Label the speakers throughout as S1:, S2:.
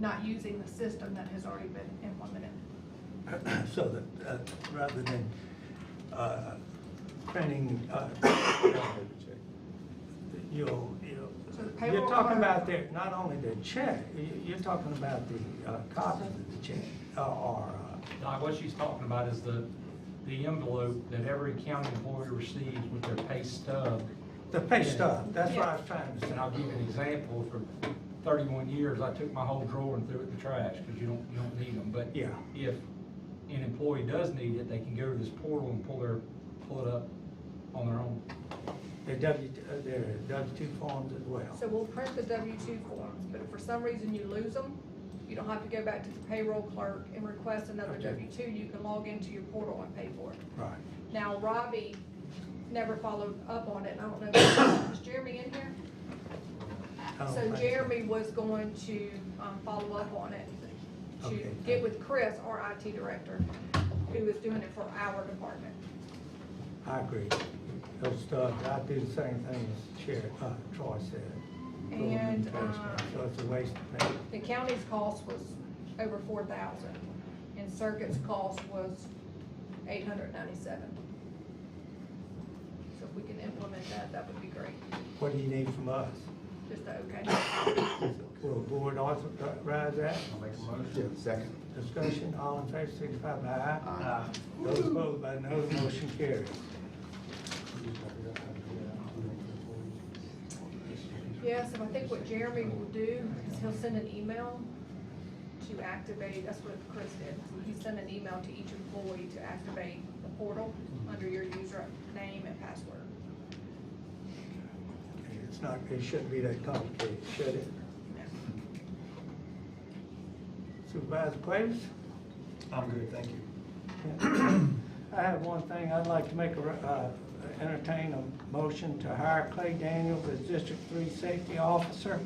S1: not using the system that has already been implemented.
S2: so that, uh, rather than, uh, printing, uh, you know, you know,
S1: So the payroll
S2: you're talking
S1: order-
S2: about their, not only their check, you- you're talking about the uh, copy of the check, uh, or, uh,
S3: Doc, what she's talking about is the, the envelope that every county employee receives with their pay stub.
S2: the pay stub, that's what I was trying to say.
S3: And I'll give you an example, for thirty-one years, I took my whole drawer and threw it in the trash, because you don't, you don't need them, but
S2: Yeah.
S3: if an employee does need it, they can go to this portal and pull their, pull it up on their own.
S2: Their W, uh, their W two forms as well.
S4: So we'll print the W two forms, but if for some reason you lose them, you don't have to go back to the payroll clerk and request another
S2: Okay.
S4: W two, you can log into your portal and pay for it.
S2: Right.
S4: Now, Robbie never followed up on it, and I don't know, was Jeremy in here?
S2: I don't
S4: So
S2: think
S4: Jeremy was going to, um, follow up on it, to
S2: Okay.
S4: get with Chris, our IT director, who is doing it for our department.
S2: I agree. Those stubs, I do the same thing as Chair, uh, Troy said. Go in
S4: And,
S2: the trash
S4: uh,
S2: can. So it's a waste of paper.
S4: The county's cost was over four thousand, and Circuit's cost was eight hundred ninety-seven. So if we can implement that, that would be great,
S2: What do you need from us?
S4: just a okay.
S2: Will the board authorize that?
S5: I'll make a motion. Second.
S2: Discussion, all in favor, signify by aye. Aye. Those opposed by no, motion carries.
S4: Yes, and I think what Jeremy will do is he'll send an email to activate, that's what Chris did. He sent an email to each employee to activate the portal under your username and password.
S2: It's not, it shouldn't be that complicated, should it? Supervisor Cleaves?
S5: I'm good, thank you.
S2: I have one thing, I'd like to make a, re- uh, entertain a motion to hire Clay Daniels as District Three Safety Officer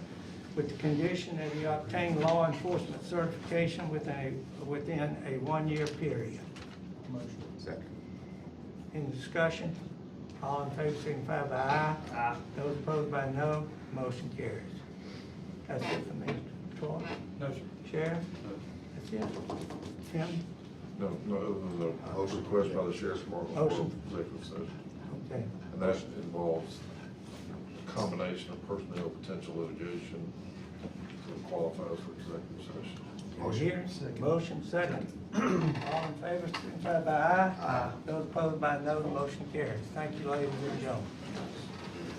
S2: with the condition that he obtain law enforcement certification within a, within a one-year period.
S5: Motion. Second.
S2: Any discussion? All in favor, signify by aye. Aye. Those opposed by no, motion carries. That's it for me. Troy,
S3: No, sir.
S2: Sheriff, that's it. Tim?
S6: No, no, other than the request by the sheriff's department for
S2: Motion.
S6: executive session.
S2: Okay,
S6: And that involves a combination of personnel, potential litigation that qualifies for executive session.
S2: Here, motion second. All in favor, signify by aye. Aye. Those opposed by no, the motion carries. Thank you, ladies and gentlemen.